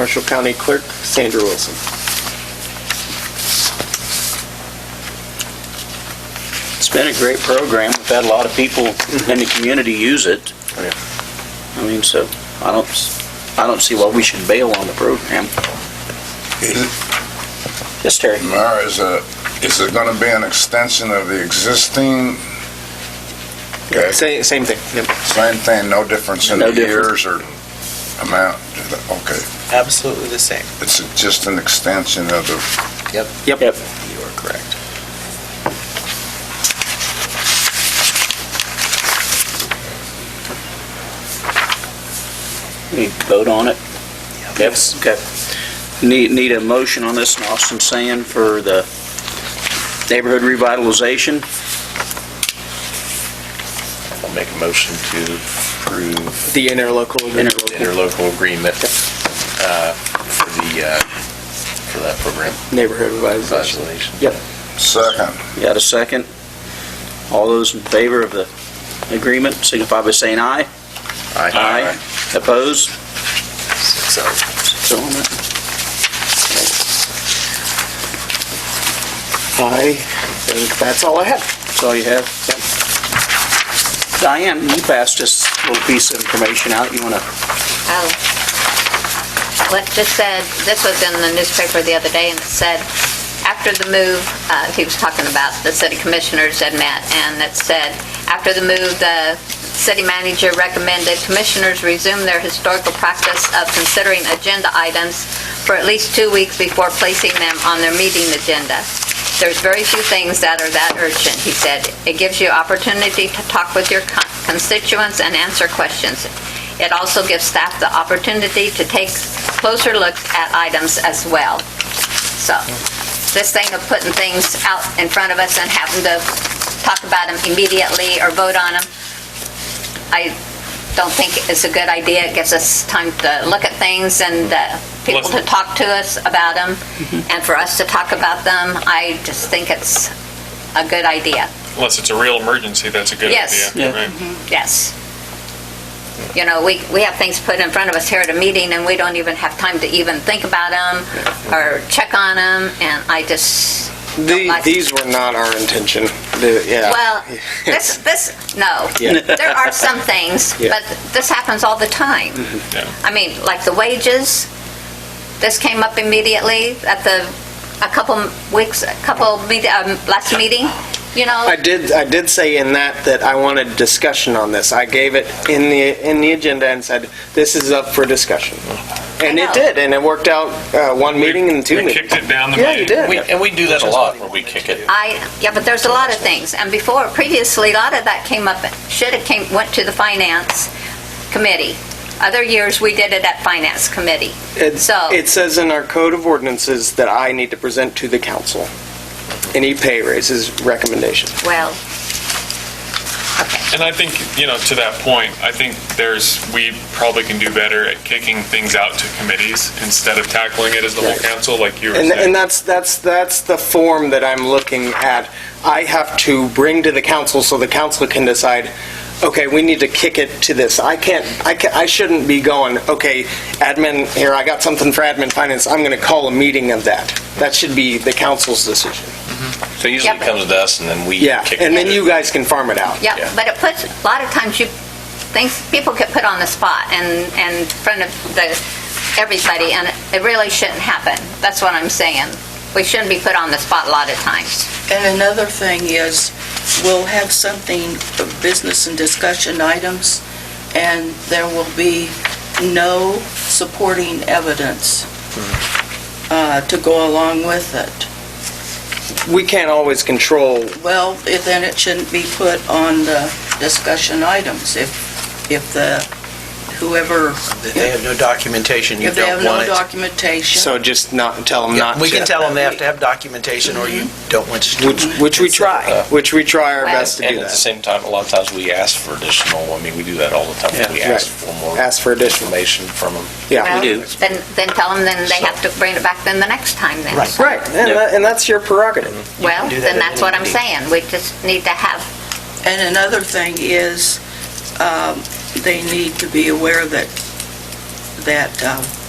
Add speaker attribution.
Speaker 1: Marshall County Clerk Sandra Wilson.
Speaker 2: It's been a great program. We've had a lot of people in the community use it.
Speaker 1: Oh, yeah.
Speaker 2: I mean, so I don't, s- I don't see why we should bail on the program. Yes, Terry?
Speaker 3: Mayor, is it, is it gonna be an extension of the existing? Okay,
Speaker 1: Same, same thing. Yep.
Speaker 3: same thing, no difference in
Speaker 2: No
Speaker 3: the
Speaker 2: difference.
Speaker 3: years or amount? Okay,
Speaker 4: Absolutely the same.
Speaker 3: it's just an extension of the,
Speaker 1: Yep.
Speaker 2: Yep.
Speaker 4: You are correct.
Speaker 2: We vote on it? Yes. Okay. Need, need a motion on this, and Austin Sand, for the neighborhood revitalization?
Speaker 5: I'll make a motion to approve
Speaker 1: The interlocal agreement.
Speaker 5: the interlocal agreement uh, for the, uh, for that program.
Speaker 1: Neighborhood revitalization.
Speaker 5: Congratulations.
Speaker 3: second,
Speaker 2: You Got a second? All those in favor of the agreement signify by saying aye.
Speaker 5: Aye.
Speaker 2: Opposed?
Speaker 4: So,
Speaker 2: So on it.
Speaker 1: I think that's all I have.
Speaker 2: That's all you have? Diane, you passed us a little piece of information out. You want to,
Speaker 6: Oh. Well, it just said, this was in the newspaper the other day, and it said, after the move, uh, he was talking about the city commissioners had met, and it said, after the move, the city manager recommended commissioners resume their historical practice of considering agenda items for at least two weeks before placing them on their meeting agenda. There's very few things that are that urgent, he said. It gives you opportunity to talk with your con- constituents and answer questions. It also gives staff the opportunity to take closer looks at items as well. So, this thing of putting things out in front of us and having to talk about them immediately or vote on them, I don't think is a good idea. It gives us time to look at things and uh, people to talk to us about them and for us to talk about them. I just think it's a good idea.
Speaker 7: Unless it's a real emergency, that's a good
Speaker 6: Yes.
Speaker 7: idea.
Speaker 2: Yeah.
Speaker 7: right?
Speaker 1: Mm-hmm.
Speaker 6: Yes. You know, we, we have things put in front of us here at a meeting, and we don't even have time to even think about them or check on them, and I just,
Speaker 1: The,
Speaker 6: like-
Speaker 1: these were not our intention. The, yeah.
Speaker 6: well, this, this, no.
Speaker 1: Yeah.
Speaker 6: There are some things,
Speaker 1: Yeah. Mm-hmm.
Speaker 6: but this happens all the time.
Speaker 7: Yeah.
Speaker 6: I mean, like the wages, this came up immediately at the, a couple weeks, a couple, meet- um, last meeting, you know?
Speaker 1: I did, I did say in that that I wanted discussion on this. I gave it in the, in the agenda and said, this is up for discussion. And
Speaker 6: I
Speaker 1: it
Speaker 6: know.
Speaker 1: did, and it worked out, uh, one meeting and two
Speaker 7: We
Speaker 1: meetings.
Speaker 7: kicked it down the
Speaker 1: Yeah,
Speaker 7: main.
Speaker 1: you did.
Speaker 5: We- And we do that a lot, where we kick it.
Speaker 6: I, yeah, but there's a lot of things, and before, previously, a lot of that came up, should have came, went to the finance committee. Other years, we did it at finance committee.
Speaker 1: It,
Speaker 6: So-
Speaker 1: it says in our code of ordinances that I need to present to the council any pay raises recommendation.
Speaker 6: Well,
Speaker 7: And I think, you know, to that point, I think there's, we probably can do better at kicking things out to committees instead of tackling it as the whole
Speaker 1: Right.
Speaker 7: council, like you were
Speaker 1: And, and
Speaker 7: saying.
Speaker 1: that's, that's, that's the form that I'm looking at. I have to bring to the council so the council can decide, okay, we need to kick it to this. I can't, I can I shouldn't be going, okay, admin, here, I got something for admin finance, I'm gonna call a meeting of that. That should be the council's decision.
Speaker 5: So usually it comes to us, and then we
Speaker 1: Yeah,
Speaker 5: kick it.
Speaker 1: and then
Speaker 5: to-
Speaker 1: you guys can farm it out.
Speaker 6: yeah,
Speaker 5: Yeah.
Speaker 6: but it puts, a lot of times you, things, people get put on the spot and, and in front of the, everybody, and it really shouldn't happen. That's what I'm saying. We shouldn't be put on the spot a lot of times.
Speaker 8: And another thing is, we'll have something, business and discussion items, and there will be no supporting evidence
Speaker 4: Mm-hmm.
Speaker 8: uh, to go along with it.
Speaker 1: We can't always control
Speaker 8: Well, if- then it shouldn't be put on the discussion items if, if the, whoever,
Speaker 4: If they have no documentation, you
Speaker 8: if they have
Speaker 4: don't
Speaker 8: no
Speaker 4: want it.
Speaker 8: documentation.
Speaker 1: So just not, tell them not to.
Speaker 4: We can tell them they have to have documentation, or you don't want to.
Speaker 1: Which, which we try, which we try our
Speaker 6: Well-
Speaker 1: best to
Speaker 5: And
Speaker 1: do
Speaker 5: at the
Speaker 1: that.
Speaker 5: same time, a lot of times we ask for additional, I mean, we do that all the time. We ask for more
Speaker 1: Ask for additional,
Speaker 5: information from them.
Speaker 1: yeah.
Speaker 6: Well,
Speaker 2: do.
Speaker 6: Then, then tell them, then they have to bring it back then the next time then.
Speaker 4: Right.
Speaker 6: So-
Speaker 1: Right, and that- and that's your prerogative.
Speaker 6: Well,
Speaker 4: do that
Speaker 6: then
Speaker 4: at
Speaker 6: that's what
Speaker 4: any
Speaker 6: I'm
Speaker 4: meeting.
Speaker 6: saying. We just need to have
Speaker 8: And another thing is, um, they need to be aware that, that uh,